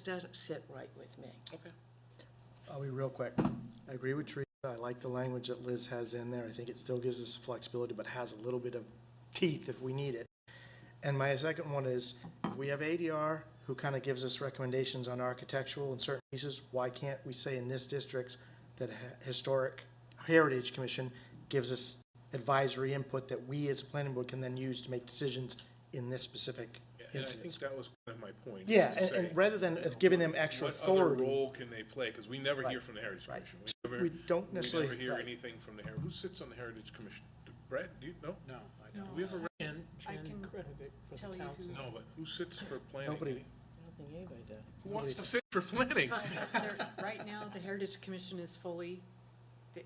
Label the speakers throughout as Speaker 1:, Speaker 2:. Speaker 1: doesn't sit right with me.
Speaker 2: Okay.
Speaker 3: I'll be real quick. I agree with Teresa. I like the language that Liz has in there. I think it still gives us flexibility, but has a little bit of teeth if we need it. And my second one is, we have ADR who kind of gives us recommendations on architectural and certain pieces. Why can't we say in this district that a ha- Historic Heritage Commission gives us advisory input that we as a planning board can then use to make decisions in this specific
Speaker 2: And I think
Speaker 3: instance?
Speaker 2: that was kind of my point. is
Speaker 3: Yeah,
Speaker 2: to
Speaker 3: and,
Speaker 2: say,
Speaker 3: and rather than giving them extra
Speaker 2: What other
Speaker 3: authority.
Speaker 2: role can they play? Because we never hear
Speaker 3: Right,
Speaker 2: from the Heritage
Speaker 3: right.
Speaker 2: Commission.
Speaker 3: We
Speaker 2: never-
Speaker 3: don't necessarily-
Speaker 2: We never
Speaker 3: right.
Speaker 2: hear anything from the Heritage. Who sits on the Heritage Commission? Do- Brad, do you, no?
Speaker 4: No, I
Speaker 2: Do
Speaker 4: don't.
Speaker 2: we have a, re-
Speaker 5: Jen,
Speaker 6: I
Speaker 5: Jen
Speaker 6: can
Speaker 5: Kretovic for
Speaker 6: tell
Speaker 5: the
Speaker 6: you
Speaker 5: council.
Speaker 2: no, but who sits for planning?
Speaker 3: Nobody,
Speaker 5: I don't think anybody does.
Speaker 2: Who wants to sit for planning?
Speaker 6: There- Right now, the Heritage Commission is fully,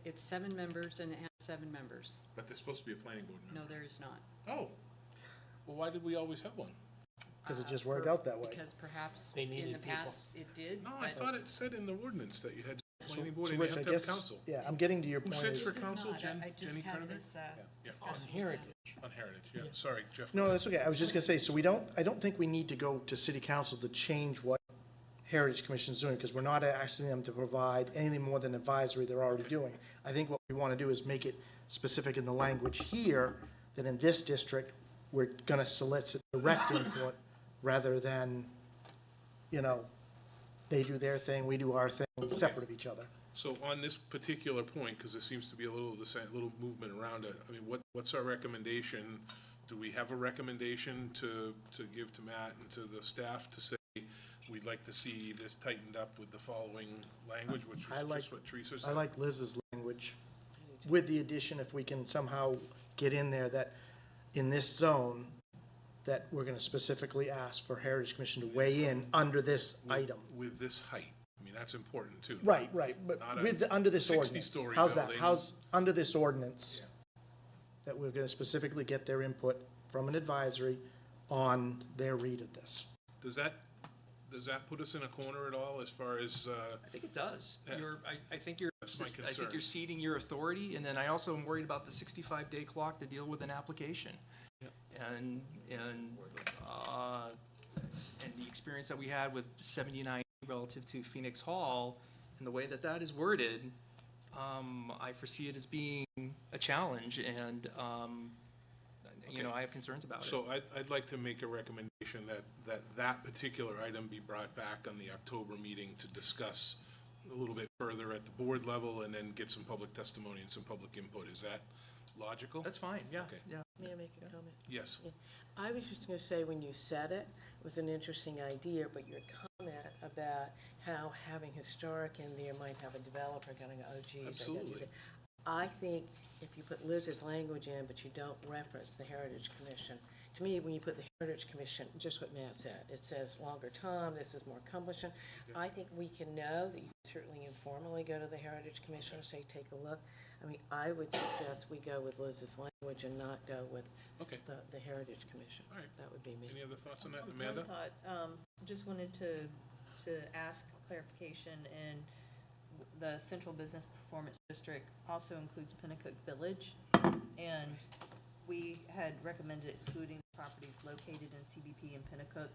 Speaker 6: it's seven members and it has seven members.
Speaker 2: But there's supposed to be a planning board
Speaker 6: No,
Speaker 2: member.
Speaker 6: there is not.
Speaker 2: Oh, well, why did we always have one?
Speaker 3: because it
Speaker 6: Uh,
Speaker 3: just worked
Speaker 6: per-
Speaker 3: out that way.
Speaker 6: Because perhaps
Speaker 5: They
Speaker 6: in the
Speaker 5: needed people.
Speaker 6: past, it did.
Speaker 2: No, I
Speaker 6: but
Speaker 2: thought it said in the ordinance that you had a
Speaker 3: So-
Speaker 2: planning board
Speaker 3: so
Speaker 2: and you
Speaker 3: Rich,
Speaker 2: have
Speaker 3: I
Speaker 2: to have
Speaker 3: guess-
Speaker 2: council
Speaker 3: Yeah, I'm getting to your point.
Speaker 2: sits
Speaker 3: is-
Speaker 2: for
Speaker 6: this is
Speaker 2: council,
Speaker 6: not. I-
Speaker 2: Jen-
Speaker 6: I just
Speaker 2: Jenny
Speaker 6: had
Speaker 2: Kretovic?
Speaker 6: this uh,
Speaker 2: Yeah.
Speaker 5: On
Speaker 6: discussion. with
Speaker 5: heritage.
Speaker 2: on Heritage, yeah. Sorry, Jeff.
Speaker 3: No, that's okay. I was just gonna say, so we don't, I don't think we need to go to city council to change what Heritage Commission's doing, because we're not asking them to provide anything more than advisory they're already doing. I think what we wanna do is make it specific in the language here, that in this district, we're gonna solicit direct input, rather than, you know, they do their thing, we do our thing, separate of each other.
Speaker 2: So on this particular point, because there seems to be a little, of the same, little movement around it, I mean, what, what's our recommendation? Do we have a recommendation to, to give to Matt and to the staff to say, we'd like to see this tightened up with the following language, which
Speaker 3: I
Speaker 2: was
Speaker 3: like-
Speaker 2: just what Teresa
Speaker 3: I
Speaker 2: said?
Speaker 3: like Liz's language, with the addition, if we can somehow get in there, that in this zone, that we're gonna specifically ask for Heritage Commission to weigh in under this item.
Speaker 2: With this height, I mean, that's important too.
Speaker 3: Right, right, but
Speaker 2: Not a
Speaker 3: with, the- under this ordinance.
Speaker 2: 60-story
Speaker 3: How's that?
Speaker 2: building.
Speaker 3: How's, under this ordinance, that we're gonna specifically get their input from an advisory on their read of this.
Speaker 2: Does that, does that put us in a corner at all as far as, uh,
Speaker 7: I think it does.
Speaker 2: Yeah.
Speaker 7: You're, I, I think you're,
Speaker 2: That's my
Speaker 7: I think
Speaker 2: concern.
Speaker 7: you're ceding your authority, and then I also am worried about the sixty-five day clock to deal with an application. And, and, uh, and the experience that we had with seventy-nine relative to Phoenix Hall, and the way that that is worded, um, I foresee it as being a challenge, and, um, you know, I have concerns about it.
Speaker 2: So I'd, I'd like to make a recommendation that, that that particular item be brought back on the October meeting to discuss a little bit further at the board level and then get some public testimony and some public input. Is that logical?
Speaker 7: That's fine, yeah,
Speaker 2: Okay.
Speaker 7: yeah.
Speaker 5: May I make a comment?
Speaker 2: Yes.
Speaker 1: I was just gonna say, when you said it, it was an interesting idea, but your comment about how having historic in there might have a developer going, oh geez. I gotta do
Speaker 2: Absolutely.
Speaker 1: that." I think if you put Liz's language in, but you don't reference the Heritage Commission, to me, when you put the Heritage Commission, just what Matt said, it says longer time, this is more cumbersome. I think we can know that you certainly informally go to the Heritage Commission and say, take a look. I mean, I would suggest we go with Liz's language and not go with
Speaker 2: Okay.
Speaker 1: the, the Heritage Commission.
Speaker 2: All right.
Speaker 1: That would be me.
Speaker 2: Any other thoughts on that,
Speaker 8: One-
Speaker 2: Amanda?
Speaker 8: One thought, um, just wanted to, to ask clarification, and the Central Business Performance District also includes Pinnacook Village, and we had recommended excluding properties located in CBP and Pinnacook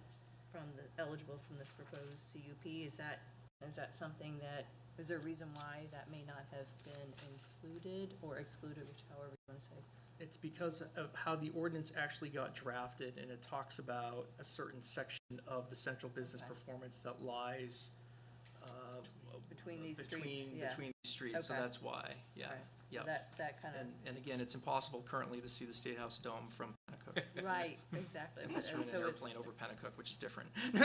Speaker 8: from the, eligible from this proposed CUP. Is that, is that something that, is there a reason why that may not have been included or excluded, which however you want to say?
Speaker 7: It's because of how the ordinance actually got drafted, and it talks about a certain section of the central business performance that lies, uh,
Speaker 8: Between these streets,
Speaker 7: between,
Speaker 8: yeah.
Speaker 7: between these streets, so
Speaker 8: Okay.
Speaker 7: that's why, yeah,
Speaker 8: Right,
Speaker 7: yeah.
Speaker 8: So that, uh, that kind
Speaker 7: And, and again, it's impossible currently to see the State House Dome from Pennacook.
Speaker 8: of, right, exactly.
Speaker 7: Unless you're in an
Speaker 8: So it's-
Speaker 7: airplane over Pennacook, which is different.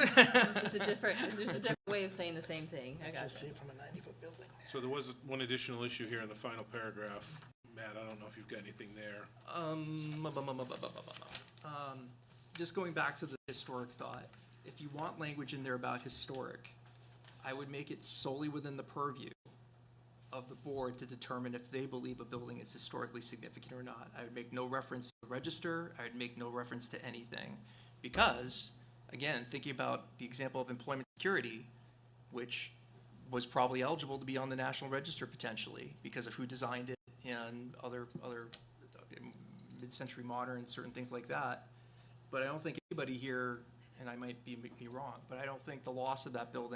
Speaker 8: It's a different, there's a different way of saying the same thing. I got
Speaker 3: See it from a ninety-foot building.
Speaker 2: So there was one additional issue here in the final paragraph. Matt, I don't know if you've got anything there.
Speaker 7: Um, bu- bu- bu- bu- bu- bu- bu- bu- um, just going back to the historic thought, if you want language in there about historic, I would make it solely within the purview of the board to determine if they believe a building is historically significant or not. I would make no reference to the register, I would make no reference to anything. Because, again, thinking about the example of employment security, which was probably eligible to be on the national register potentially because of who designed it and other, other um, mid-century modern, certain things like that. But I don't think anybody here and I might be, be wrong, but I don't think the loss of that building